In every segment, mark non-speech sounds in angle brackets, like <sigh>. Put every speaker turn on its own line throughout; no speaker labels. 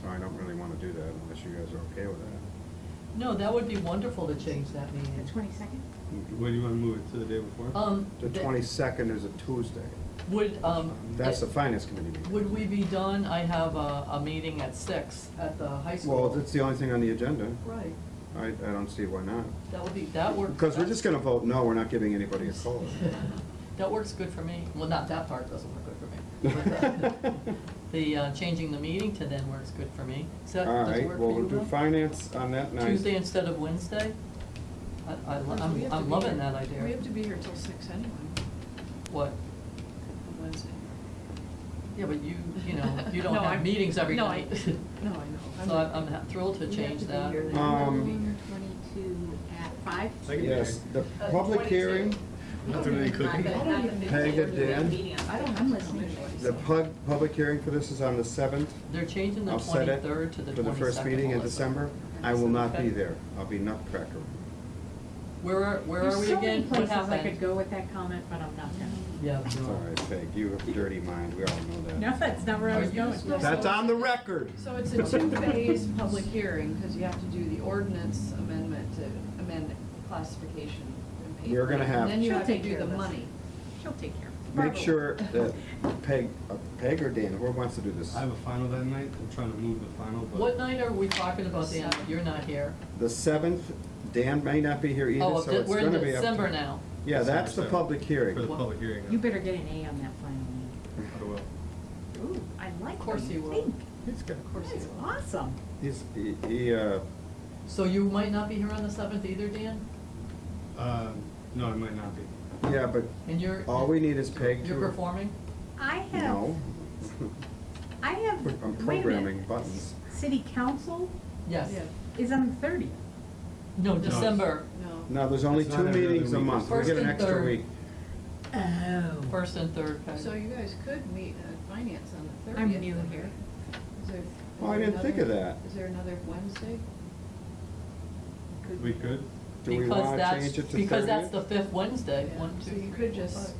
so I don't really wanna do that unless you guys are okay with that.
No, that would be wonderful to change that
The
meeting.
twenty-second?
What do you want to move it to the day before?
Uh,
Um,
The
th-
twenty-second is a Tuesday.
Would, um.
That's the
it-
finance committee meeting.
Would we be done? I have a, a meeting at six at the high school.
Well, that's the only thing on the agenda.
Right,
I, I don't see why not.
that would be, that works.
Because we're
<laughs>
just gonna vote no, we're not giving anybody a COLA.
That works good for me. Well, not that part doesn't work good
<laughs>
for me. but, uh, The, uh, changing the meeting to then works good for me. Does that,
All
does it
right,
work
well,
for you,
we'll do
Bill?
finance on that night.
Tuesday instead of Wednesday? I, I, lo-
Because we
I'm,
have to
I'm
be
loving
here-
that idea.
We have to be here till six anyway,
What?
on Wednesday.
Yeah, but you, you
<laughs>
know, you don't
No,
have
I'm-
meetings every
no, I- <laughs>
night.
No, I know.
So I'm, I'm thrilled to change that.
then. Um,
November twenty-two at five?
I can-
Yes, the
Uh,
public hearing,
22.
Not doing any cooking.
Not the- not the
Peg
and
15, we have a
Dan.
meeting on
I don't
Thursday.
have
I'm
to
listening.
come
the pub, public hearing for this is on the seventh.
They're changing the
I'll set it
twenty-third to the twenty-second.
For the first meeting in December. I will not be
Okay.
there. I'll be nutcracker.
Where are, where are
There's
we
so many
again? What
places I
happened?
could go with that comment, but I'm not gonna.
Yeah.
It's all right, Peg, you have a dirty mind, we all know
No,
that.
that's not where I
Are
was
you
going.
supposed
That's on the record.
So it's a two-phase public hearing, because you have to do the ordinance amendment to amend classification and pay.
We're gonna
for it,
have-
And then you
She'll
have to
take
do
care
the
of this.
money.
She'll take care of it.
<laughs> Make sure that Peg, uh, Peg or Dan, whoever wants to do this,
I have a final that night. I'm trying to move the final, but.
What night are we talking about, Dan?
Seven.
You're not here.
the seventh, Dan may not be here either,
Oh,
so it's
we're in
gonna be up to.
December now.
Yeah, that's the
December seventh.
public hearing.
For the
What?
public hearing.
<laughs> You better get an A on that final
I will.
one. Ooh, I
Of
like what
course you
you
will.
think.
He's got,
Of course you
That's
will.
awesome.
he's, he- he, uh,
So you might not be here on the seventh either, Dan?
Um, No, it might not be.
yeah, but
And you're.
all we need is Peg to.
You're performing?
I
<laughs>
have,
No.
I have, wait a
I'm
minute.
programming buttons.
City council
Yes.
Yeah,
is on the thirtieth.
No,
No.
December,
no.
No, there's only
It's
two
not every other
meetings a
week.
month, we
First
get an
and
extra
third.
week.
Oh.
first and third, Peg.
So you guys could meet at finance on the
I'm
thirtieth.
new here.
Is there? is
Oh, I
there
didn't think of
another-
that.
Is there another Wednesday?
We could.
Do we
Because
wanna
that's-
change it to thirtieth?
Because that's the fifth Wednesday,
Yeah,
one, two,
So
three,
you
four,
could just,
five.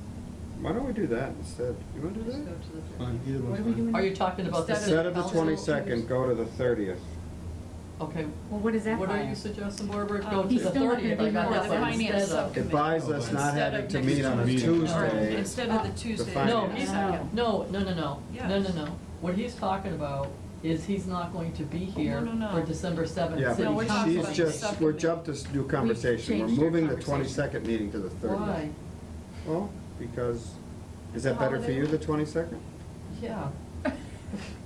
Why don't we do that instead? You wanna
just
do
go to
that?
the
Fine,
thirtieth.
either
What
one's
are we
fine.
doing?
Are you talking about the?
Instead
Instead of the
Council
twenty-second,
meetings.
go to the thirtieth.
Okay,
Well, what is that
what are
file?
you
<laughs>
suggesting, Barbara?
Um,
Go to
Oh, he's
the
still not
thirtieth,
gonna
I
be
got
here.
that
The
one
finance
instead of.
subcommittee.
It buys
Oh,
us
but
not
instead
having
of
to
next
meet on a
Tuesday.
Alright.
Tuesday.
Instead of the
Uh,
No,
Tuesday.
finance.
he's
No.
not, no, no, no, no, no, no,
Yes.
no. What he's talking about is he's not going to be here
no, no.
for December seventh
Yeah,
city
No, we're
but
council.
talking
she's
about
just,
subcommittee.
we're jumped to this new conversation. We're
changed our
moving the
conversation.
twenty-second meeting to the thirtieth.
Why?
Well, because, is
It's a
that better for
holiday.
you, the twenty-second?
Yeah,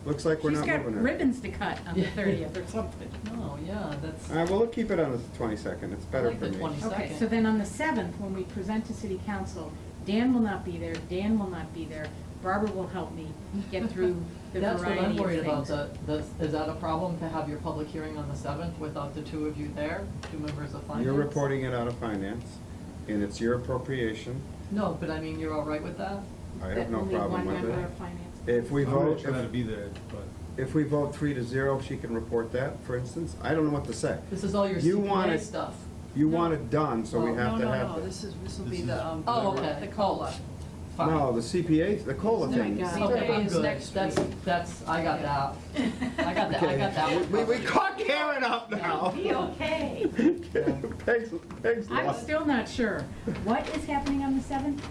Looks like we're
She's
not
got
moving it.
ribbons to cut on the thirtieth or
<laughs>
something.
no, yeah, that's,
All right, well, we'll keep it on the twenty-second. It's better
like
for
the
me.
20
Okay,
Second.
so then on the seventh, when we present to city council, Dan will not be there, Dan will not be there, Barbara will help me
<laughs>
get through the
that's what
variety of
I'm
things.
worried about, the, the, is that a problem to have your public hearing on the seventh without the two of you there, two members of finance?
You're reporting it out of finance, and it's your appropriation.
No, but I mean, you're all right with that?
I have no problem
That only one member of
with
finance.
it. If we
I'm gonna
vote,
try to
if,
be there, but
if we vote three to zero, she can report that, for instance. I don't know what to say.
This is all your
You want
CPA
it-
stuff.
You want it done, so we
Well,
have to
No, no,
have
no,
this.
this is, this will
This
be
is-
the, um.
Oh, okay.
The COLA.
Fine.
No, the CPA, the COLA
No,
thing.
I got it.
Okay,
Today
I'm
is
good.
next
That's,
week.
that's, I got that. I got that, I got that one.
We, we
covered.
caught Karen up now. <laughs>
Be okay.
Peg's, Peg's
I'm
lost.
still not sure. What is happening on the seventh?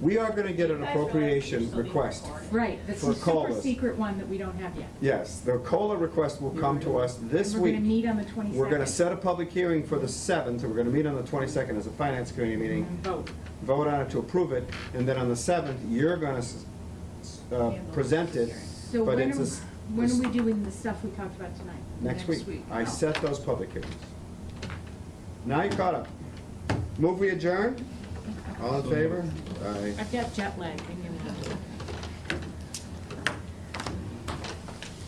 We are gonna get an appropriation request.
Right, this
For
is super
colas.
secret one that we don't have yet.
Yes, the COLA request will come to us this
And We're gonna
week.
meet on the twenty-second.
We're gonna set a public hearing for the seventh, and we're gonna meet on the twenty-second as a finance committee meeting.
Vote.
vote on it to approve it, and then on the seventh, you're gonna s- s- uh, present it,
So
but
when
it's, a
are,
s-
when
s-
are we doing the stuff we talked about tonight?
next
next
week.
week?
I
Oh.
set those public hearings. Now you caught up. Move we adjourn? All in favor? Aye.
I've got jet lag, I'm gonna have to.